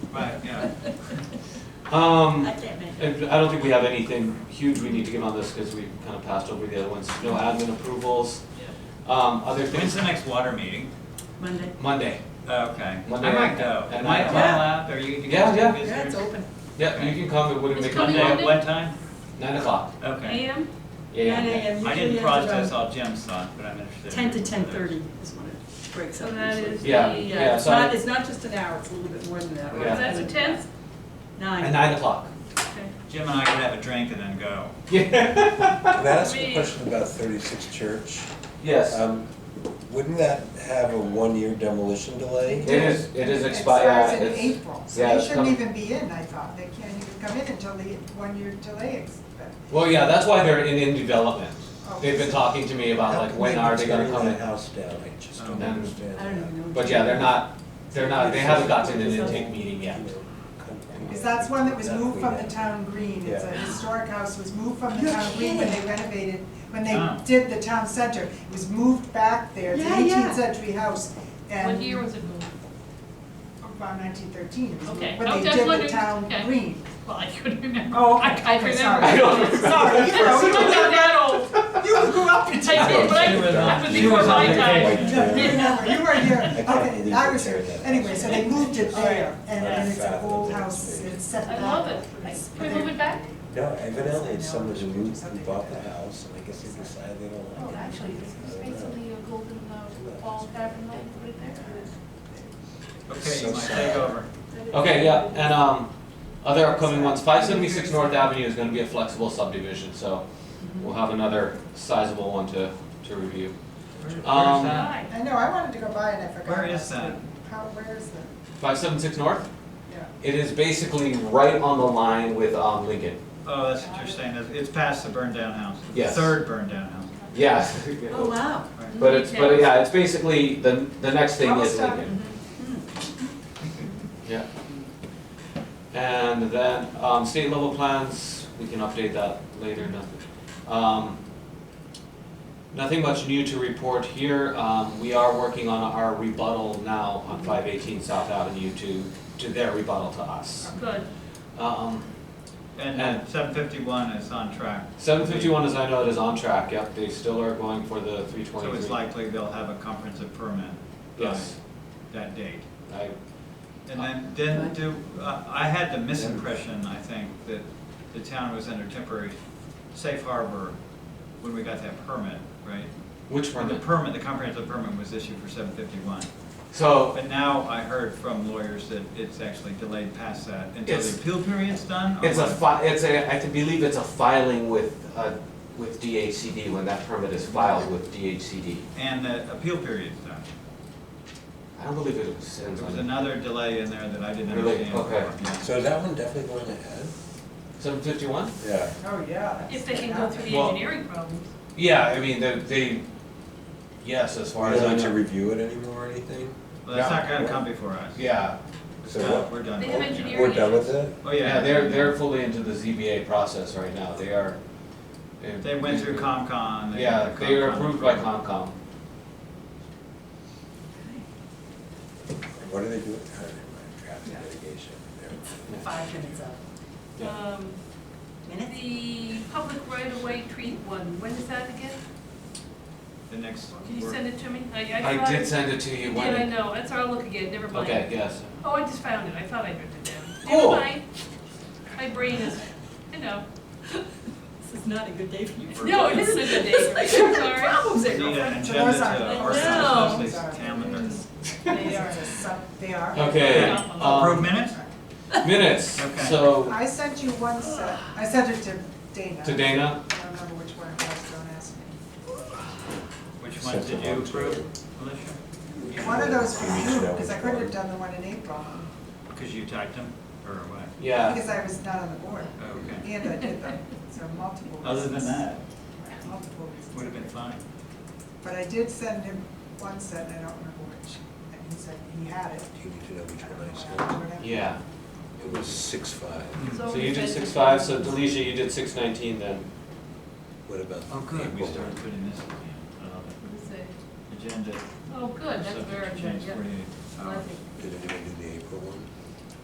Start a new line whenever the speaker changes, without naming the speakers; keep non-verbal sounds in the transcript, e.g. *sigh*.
Right, yeah.
Um,
I can't make it.
and I don't think we have anything huge we need to give on this because we kind of passed over the other ones. No admin approvals. Um, other
When's
things,
the next water meeting?
Monday.
Monday.
Okay.
Monday
I
at-
might go.
at
Am I
nine.
am I allowed? Are you, you guys are
Yeah, yeah.
Yeah, it's
visitors?
open.
Yeah, you can come, it wouldn't
It's
make
coming
a
Monday at
Monday?
what time?
Nine o'clock.
Okay.
AM?
Yeah,
Nine
yeah.
AM,
I
usually
didn't
it's
process
around
all Jim's thought, but I'm interested.
Ten to
in
ten
others.
thirty is when it breaks
So
up.
that
usually.
is the,
Yeah, yeah,
uh,
It's
so
not, it's not just an hour, it's a little bit more than that.
Yeah.
is that the tenth?
At
Nine.
nine o'clock. *laughs*
Okay.
Jim and I could have a drink and then go.
Yeah.
Can I ask a
Me.
question about thirty-six Church?
Yes.
Um, Wouldn't that have a one-year demolition delay?
It is, it is
expires
expired,
in
it's,
April, so
yeah,
they
it's
shouldn't
coming-
even be in, I thought, they can't even come in until the one-year delay is,
well, yeah, that's why they're in, in development.
oh.
They've been talking to me about
How
like,
can
when are they gonna
tear
come
that
in?
House down, I just
Um,
don't understand
I don't
that.
even know.
But yeah, they're not, they're not, they haven't gotten an intake meeting yet.
Because that's one that was moved from the
Yeah.
town green, it's a
Yeah.
historic house, was moved from the
You're
town green when they
kidding.
renovated, when
Ah.
they did the town center, it was moved back there, it's
Yeah,
an
yeah.
eighteenth century house, and
What year was it moved?
around nineteen thirteen, it was
Okay.
moved, but
I'm
they
just
did the
wondering-
town
okay.
green.
Well, I couldn't remember.
Oh,
I
okay,
I
okay,
remember.
sorry.
I don't remember.
Sorry, you
I *laughs*
know,
don't know that
*laughs*
old.
you grew up in
I did, but I,
She was on-
that was
she was
before
on
my
vacation.
time.
White
Yeah,
*laughs*
tear.
remember, you were here,
can't
okay,
believe
I
they
was
tear
here,
that
anyway,
house.
so they moved it there, and
Yeah.
and it's an
Yeah.
old house, it's set
Oh, I
back.
love it. Can we move it back?
No, evidently it's someone who moved, who bought the house, and I guess they decided they don't
Oh,
like it.
Oh, actually, it's basically a golden uh, ball pattern, like, put it there.
Okay, you
So
might
sorry.
take over.
Okay, yeah, and, um, other upcoming ones, five seventy-six North Avenue is gonna be a flexible subdivision, so we'll have another sizable one to, to review.
Where- where's
Um,
that?
Hi.
I know, I wanted to go by and I forgot.
Where is
last
that?
week. How, where is that?
Five seventy-six North,
Yeah.
it is basically right on the line with, um, Lincoln.
Oh, that's what you're saying. It's- It's past the burned down house. The
Yes.
Third burned down house.
*laughs* Yes.
Oh, wow.
But it's, but yeah, it's basically, the, the next thing is
Almost done.
Lincoln. Yeah. And then, um, state level plans, we can update that later, nothing. Um, nothing much new to report here, um, we are working on our rebuttal now on five eighteen South Avenue to, to their rebuttal to us.
Good.
Um,
And
And-
seven fifty-one is on track.
seven fifty-one, as I know it, is on track, yep, they still are going for the three
So
twenty-three.
it's likely they'll have a comprehensive permit. by
Yes,
uh, That date.
I,
And then, then do, I I had the misimpression, I think, that the town was under temporary safe harbor when we got that permit, right?
which
Or the
permit?
permit, the comprehensive permit was issued for seven fifty-one.
So,
But now I heard from lawyers that it's actually delayed past that until
It's-
the appeal period's done? or
It's a
what?
fi, it's a, I can believe it's a filing with, uh, with DHCD when that permit is filed with DHCD.
And the appeal period's done.
I don't believe it was in
There was
on
another delay in there that I didn't
Really?
understand.
Okay.
Yeah.
So is that one definitely going ahead?
seven fifty-one?
Yeah.
Oh, yeah.
If they can go
*laughs*
through the
Well-
engineering problems.
Yeah, I mean, they, they, yes, as
We
far as
don't
I
need to
know.
review it anymore or anything?
Well, that's
Yeah.
not gonna come before us.
Yeah,
It's
So
done.
what-
We're done.
They have
Yeah.
engineering-
We're done with it?
Oh,
yeah, they're, they're fully into the ZBA process right now, they are.
They went through COMCON. they
Yeah,
got the
they are
COMCON
approved by
approval.
Concom.
What do they do with time in traffic litigation? They're-
Five minutes up.
Yeah.
Um,
Minutes?
the public right-of-way treat one, when is that again?
The next.
Can you
work-
send it to me? I, I thought.
I did send it to you
Did
when.
I know, that's our look again, never mind.
Okay, yes.
Oh, I just found it, I thought I wrote it down.
Cool.
Never mind. My brain is, you know,
This is not a good day for you.
no, it isn't a good day for
*laughs*
me, I'm sorry.
Problems
We
there.
Need an
So
agenda
those
to
are-
our
No.
council's
Sorry.
calendar.
They are, they are.
Okay,
Yeah. Approved
um,
minutes?
minutes,
Okay.
so,
I sent you one set, I sent it to Dana.
to Dana,
I don't remember which one it was, don't ask me.
Which ones did you approve, Alicia?
One of those for you,
Yeah.
because I couldn't have done the one in April,
Because you typed them, or what?
yeah.
because I was not on the board,
Okay.
and I did them, so multiple reasons.
Other than that,
Multiple reasons.
would have been fine.
But I did send him one set, and I don't remember which, and he said he had it.
Do you need to know which
I don't
one
know
I
what
said?
happened, whatever.
Yeah,
It was six five.
Hmm.
so you did six five, so Delicia, you did six nineteen then.
What about?
We
April?
started putting this again. Oh, I love
What is it?
it. Agenda.
Oh, good, that's
subject
very
to
good,
change
yeah.
forty-eight hours.
Lovely.
Did anyone do the April one?